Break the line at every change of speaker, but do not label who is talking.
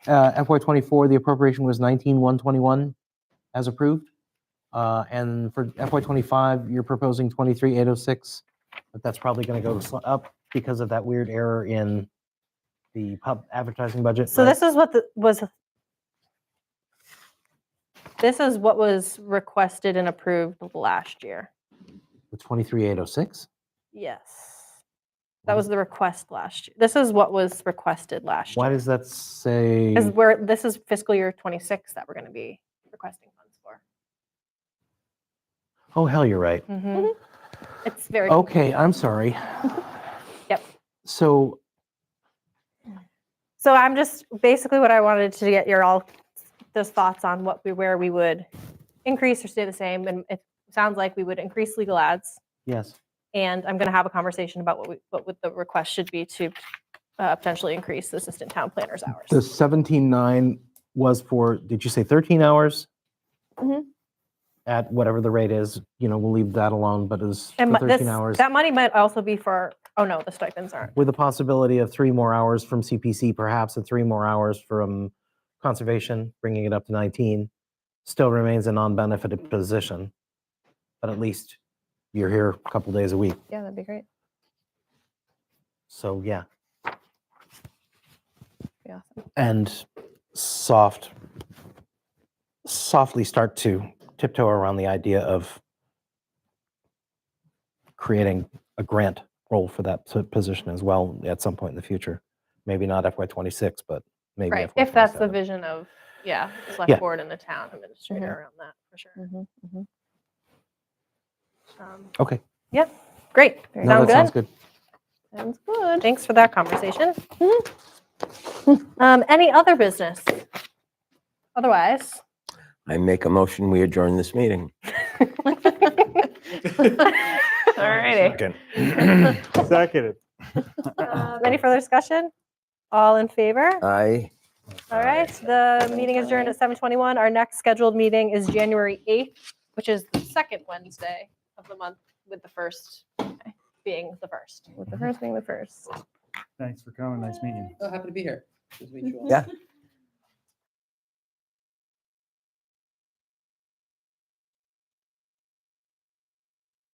Uh, FY twenty-four, the appropriation was nineteen one twenty-one as approved. Uh, and for FY twenty-five, you're proposing twenty-three eight oh six, but that's probably gonna go sl- up because of that weird error in the pub advertising budget.
So
right?
this is what the, was, this is what was requested and approved last year.
The twenty-three eight oh six?
Yes. That was the request last, year. this is what was requested last
Why
year.
does that say?
Is where, this is fiscal year 26 that we're going to be requesting funds for.
Oh, hell, you're right.
Mhm. It's very,
Mm-hmm. Okay, I'm sorry.
Yep.
So
so I'm just, basically what I wanted to get your all, those thoughts on what we, where we would increase or stay the same. And it sounds like we would increase legal ads.
Yes.
And I'm going to have a conversation about what we, what would the request should be to uh, potentially increase the assistant town planner's
The
hours.
seventeen nine was for, did you say thirteen hours?
Mhm.
At whatever the rate is, you know, we'll leave that alone, but it's
And
for
mo- this,
thirteen hours.
that money might also be for, oh no, the stipends aren't.
With the possibility of three more hours from CPC, perhaps, and three more hours from conservation, bringing it up to nineteen, still remains a non-benefited position. But at least you're here a couple days a week,
Yeah, that'd be great.
so yeah.
Be awesome.
and soft softly start to tiptoe around the idea of creating a grant role for that p- position as well at some point in the future maybe not fy26 but maybe
Right,
FY
if that's the
27.
vision of, yeah, the
Yeah.
select board and the town administrator
Mm-hmm.
around that, for sure.
Mhm, mhm.
Um,
okay
Great,
mm-hmm. Very
no,
sound
that sounds
good?
good
Sounds good. Mm-hmm.
Thanks for that conversation. Um, Any other business? Otherwise.
I make a motion, we adjourn this meeting.
All righty.
Seconded.
Um, Any further discussion? All in favor?
Uh,
Aye.
All right, the meeting is adjourned at 7:21. Our next scheduled meeting is January 8th, which is the second Wednesday of the month, with the first being the first.
With the first being the first.
Thanks for coming. Nice meeting you.
So happy to be here. Nice to meet you all.
Yeah.